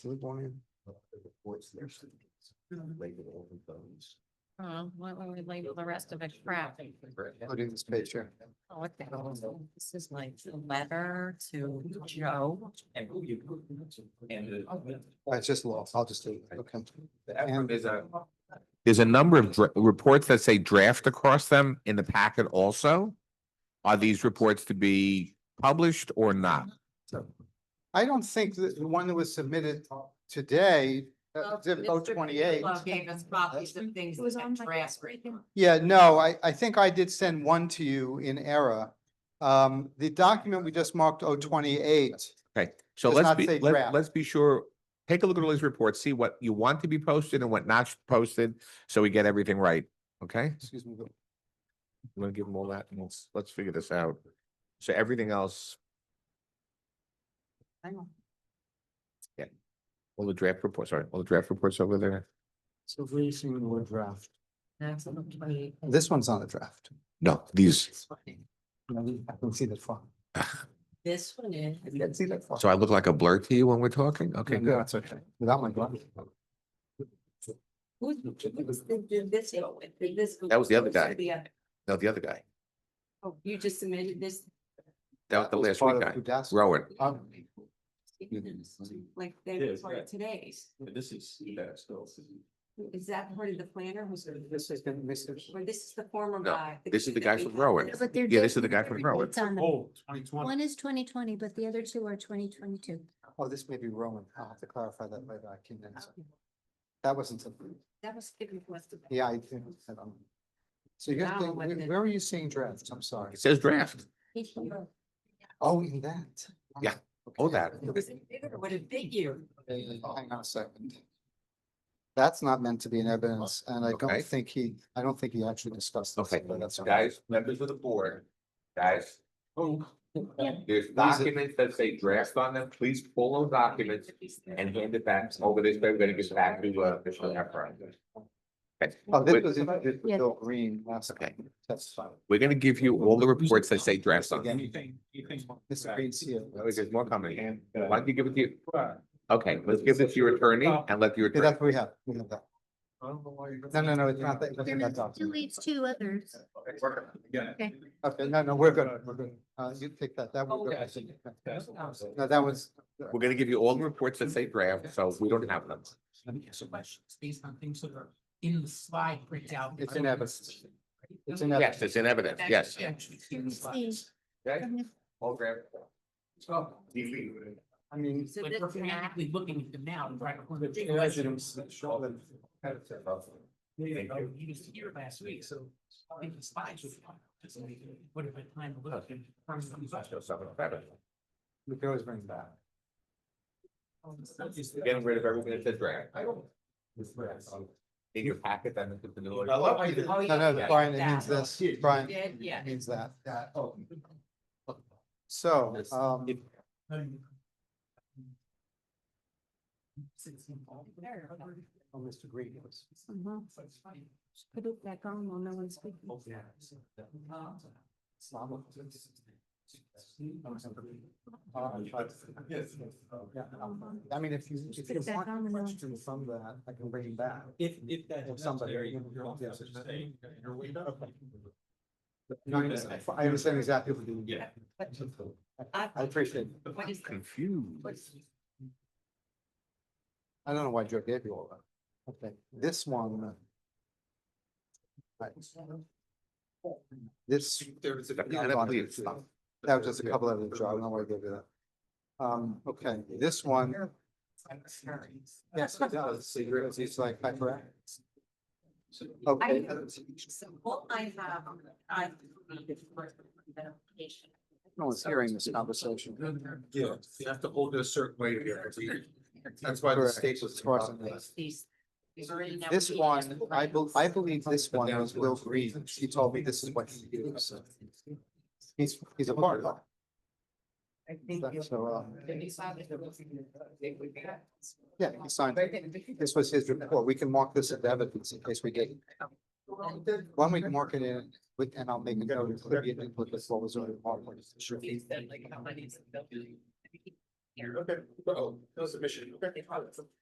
Sleep on him. Oh, why don't we label the rest of it crap? Including this picture. Oh, what the hell is this? This is like a letter to Joe. And who you. And. Uh, It's just lost. I'll just leave. it. Okay. effort is uh, a. There's a number of dra- reports that say draft across them in the packet also. Are these reports to be published or not? I don't think that the one that was submitted today, Oh, uh, zip code twenty-eight. Gave us copies of things It was on that my- transcript. Yeah, no, I, I think I did send one to you in error. Um, the document we just marked oh, 028. Okay, so Does let's not be, say let- draft. let's be sure, take a look at all these reports, see what you want to be posted and what not posted, so we get everything right, okay? excuse me. but- I'm gonna give them all that and let's, let's figure this out. So everything else, Hang on. all the draft reports, sorry, all the draft reports over there. So releasing the word draft. That's a little bit- This one's on the draft. No, these, This one- I can see that far. This one is. I can see that far. so I look like a blur to you when we're talking? Okay, No, no, good. That's okay. Without my glasses. Who did this go with? Did this? go- That was the other guy. The other- No, the other guy, Oh, you just submitted this? that was the last Part week of guy, Udacity. Rowan. Um, Like they Yes, were yeah. today's. This is. that's still- Is that part of the planner who's? This has been missed. Or this is the former No, guy? this is kid the that guy we from had Rowan. this- But they're. Yeah, this is the different. guy from Rowan. It's on the, Oh, twenty twenty. one is twenty twenty, but the other two are twenty twenty-two. Oh, this may be Roman. I'll have to clarify that later. I can, uh, that wasn't, a- That was given to us. today. yeah, I didn't. um, So you're, Now, gonna think- what where did- where are you seeing drafts? I'm sorry. It says draft, Oh, in that. Yeah. Okay. Oh, that. It was in bigger, What a big year. oh, Hang on a second. That's not meant to be in evidence, and I Okay. don't think he, I don't think he actually discussed this. okay, but that's all right. guys, members of the board, guys. Oh, There's documents that say draft on them, please pull those documents and hand it back over this, way. we're gonna get back to uh, Mr. Efron. Okay. Oh, this was, We're- in- this was Yeah. Bill Green last Okay. time. That's fine. We're gonna give you all the reports that say draft on them. Anything, anything. Mr. Green's here. Oh, There's more coming. And, Why uh, don't you give it to, okay, let's give this to your attorney and let your Yeah, attorney. that's what we have. We have that. I don't know why you're. No, no, no, it's not that. There nothing was that's up. two leads, two others. Yeah. Okay, no, no, we're good. We're good. Uh, you take that. That was. Okay. No, that was, We're gonna give you all the reports that say draft, so we don't have them. Let me ask you questions based on things that are in the slide printout. It's in evidence. it's in Yes, evidence. it's in evidence, yes. Actually, it's in the slides. Okay, all draft. So, I mean, So like, this we're is not- frantically looking at them now. and trying to- He was here last week, so I think the slides would. What if I time to look? and- we could always bring it back. Getting rid of everything that says draft. I don't. In your packet, then it's the new. I love how you. Oh, No, yeah. no, Brian, it means That. this. Brian, Yeah, yeah. it means that. that. Oh. So, um, oh, Mr. Green was. Mm-hmm. Mhm. Put it back on while no one's speaking. Oh, I mean, if you, if Put you it back on want and on. questions from that, I can bring it back. If, if that's. If somebody- necessary, you're on the other side, you're way up. No, I understand- I understand exactly what you Yeah. I- I appreciate it. Uh, What is that? Confused. I don't know why Joe gave you all that. Okay, this one. uh, Right. This. There's a. That was just a couple of them, Joe. I don't know why I gave you that. Um, okay, this one. Yes, it does. So you're, it's like hyper. Okay, So what I have, I. Verification. no one's hearing this conversation. Yeah, you have to hold it a certain way to get it. That's why the Correct. state was. As far as I'm aware. These- these are in- This one, I bel- I believe this one was Will Green. She told me this is what he used. He's, he's a part of I think that. you- So, uh, they decided it was- they would be- yeah, he signed. it. This was his report. We can mark this as evidence in case we get. One we can mark it in, with- and I'll make a note, it could be an input, that's what was on the report. They said, like, how many is it built? Okay, oh, no submission, okay.